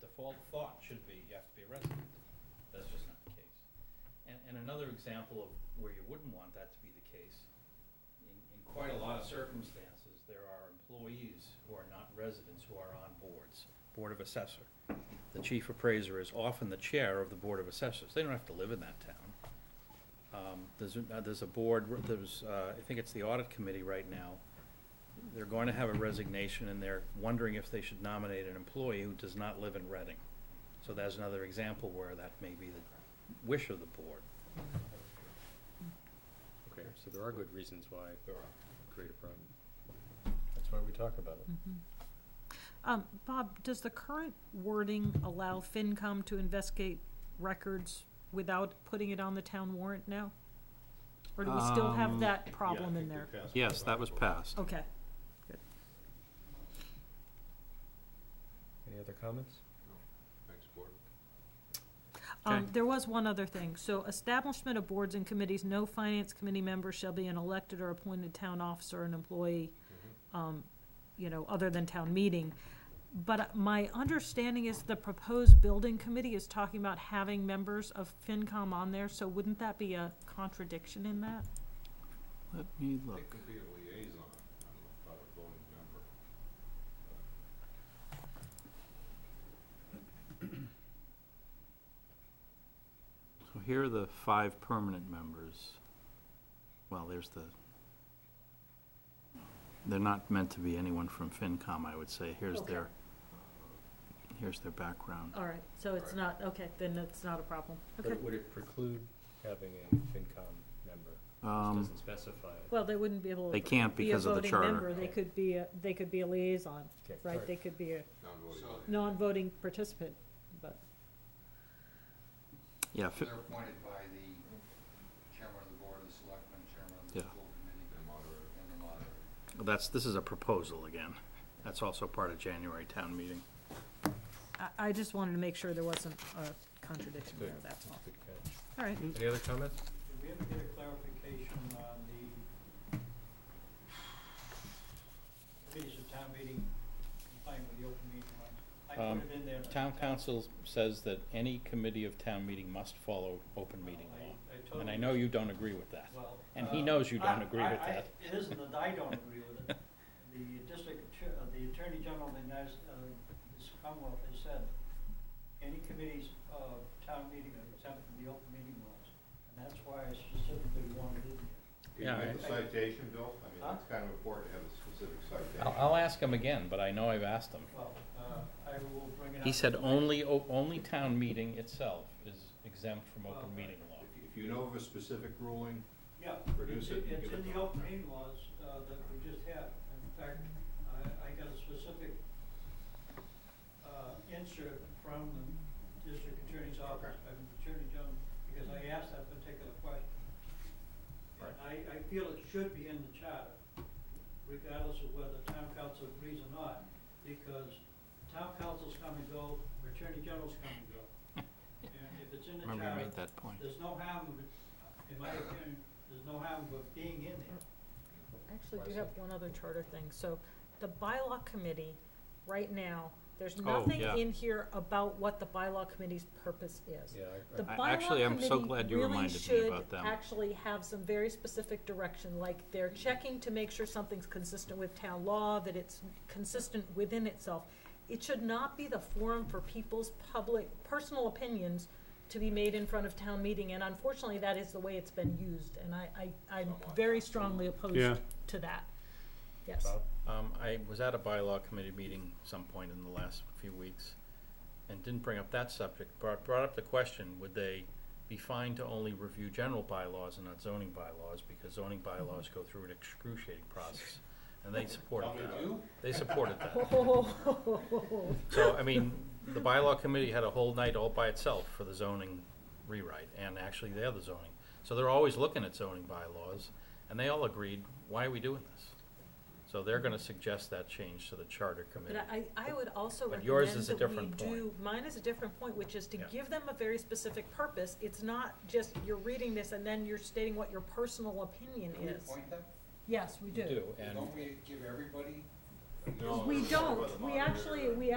default thought should be, you have to be a resident. That's just not the case. And, and another example of where you wouldn't want that to be the case, in, in quite a lot of circumstances, there are employees who are not residents who are on boards, Board of Assessor. The chief appraiser is often the chair of the Board of Assessors. They don't have to live in that town. Um, There's, a- uh, there's a board, there's, uh, I think it's the audit committee right now. They're going to have a resignation and they're wondering if they should nominate an employee who does not live in Reading. So that's another example where that may be the wish of the board. Okay, so there are good reasons why There are. create a problem. That's why we talk about it. Um, Bob, does the current wording allow FinCom to investigate records without putting it on the town warrant now? Or do we still have Um, that problem in there? Yes, that was passed. Okay. Any other comments? Um, Okay. there was one other thing. So establishment of boards and committees, no finance committee member shall be an elected or appointed town officer or an employee, um, you know, other than town meeting. But uh, my understanding is the proposed building committee is talking about having members of FinCom on there, so wouldn't that be a contradiction in that? Let me look. It could be a liaison, I don't know, not a voting member. So here are the five permanent members. Well, there's the, they're not meant to be anyone from FinCom, I would say. Here's Okay. their, here's their background. All right, so it's not, okay, then it's not a problem. Okay. But would it preclude having a FinCom member? This Um, doesn't specify it. Well, they wouldn't be able They to can't be a because of the voting member. charter. They could be, a- they could be a liaison, Okay. right? They could be a Non-voting. member. non-voting participant, but. Yeah, fi- They're appointed by the chairman of the board, the selectman, chairman of the Yeah. school committee, The moderator. and the moderator. that's, this is a proposal again. That's also part of January town meeting. I, I just wanted to make sure there wasn't a contradiction there, Good. that's all. Good catch. All right, Any other comments? Did we ever get a clarification on the committees of town meeting complying with the open meeting laws? I Um, put it in there. and I- Town council says that any committee of town meeting must follow open Well, meeting I- law. I And I totally- know you don't agree with that. well, and he uh, knows you don't I- agree with I- I- that. It isn't that I don't agree with it. The district, attor- uh, the attorney general of the United, S- uh, this Commonwealth has said, any committees of town meeting are exempt from the open meeting laws. And that's why I specifically wanted it in there. Can Yeah, you make I- a citation, Bill? I mean, Huh? it's kind of important to have a specific citation. I'll, I'll ask him again, but I know I've asked him. Well, uh, I will bring it up. He said to the- only, o- only town meeting itself is exempt from Well, open meeting law. If- If you know of a specific ruling, Yeah, Produce it's, it and it's give in it the to open meeting laws, uh, that we just had. In fact, I, I got a specific, uh, insert from the district attorney's office, from the attorney general, because I asked that particular question. And I, I feel it should be in the charter, regardless of whether town council agrees or not, because town councils come and go, attorney generals come and go. And if it's in the Remember you charter, made that point. there's no harm, of- in my opinion, there's no harm of being in there. actually do have one other charter thing. So the bylaw committee, right now, there's nothing yeah. in here about what the bylaw committee's purpose is. Yeah, I- The I- actually, I'm so glad bylaw you committee really reminded me should about them. actually have some very specific direction, like they're checking to make sure something's consistent with town law, that it's consistent within itself. It should not be the forum for people's public, personal opinions to be made in front of town meeting, and unfortunately, that is the way it's been used, and I, I, I'm very strongly opposed to that. Yes. Bob? Um, I was at a bylaw committee meeting some point in the last few weeks and didn't bring up that subject, brought, brought up the question, would they be fine to only review general bylaws and not zoning bylaws? Because zoning bylaws go through an excruciating process, and they supported Tell me that. you? They supported that. Oh, So, I mean, the bylaw committee had a whole night all by itself for the zoning rewrite, and actually the other zoning. So they're always looking at zoning bylaws, and they all agreed, why are we doing this? So they're gonna suggest that change to the charter committee. But I, I would also But yours recommend is a that we different point. do, mine is a different point, which is to Yeah. give them a very specific purpose. It's not just you're reading this and then you're stating what your personal opinion Do we is. appoint them? Yes, we You do, and. Don't we give everybody No, We it's by the don't, we moderator. actually, we